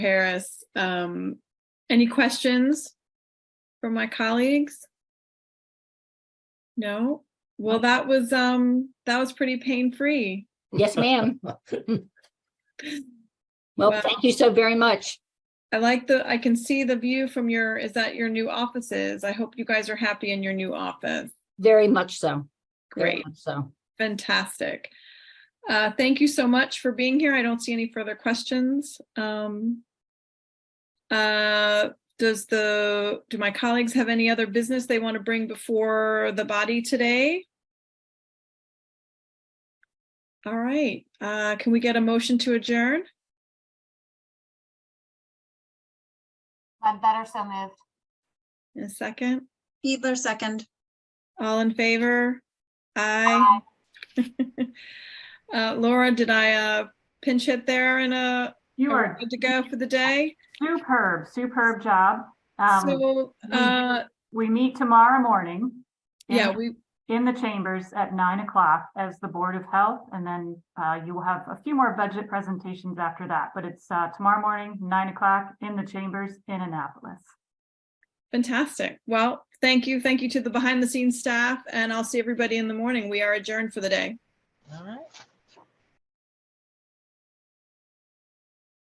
Harris. Um, any questions from my colleagues? No? Well, that was, um, that was pretty pain-free. Yes, ma'am. Well, Wow. thank you so very much. I like the, I can see the view from your, is that your new offices? I hope you guys are happy in your new office. Very much so. Very Great, much So, fantastic. Uh, thank you so much for being here. I don't see any further questions. Um, uh, does the, do my colleagues have any other business they want to bring before the body today? All right, uh, can we get a motion to adjourn? Ledbetter, so moved. In a second, Fiedler, second. all in favor? Aye. Aye. Uh, Laura, did I uh, pinch hit there and uh, You are are we good to go for the day? superb, superb job. Um, So, uh, we meet tomorrow morning. in- yeah, we, In the chambers at nine o'clock as the Board of Health, and then, uh, you will have a few more budget presentations after that, but it's, uh, tomorrow morning, nine o'clock in the chambers in Annapolis. fantastic. Well, thank you. Thank you to the behind the scenes staff and I'll see everybody in the morning. We are adjourned for the day. All right.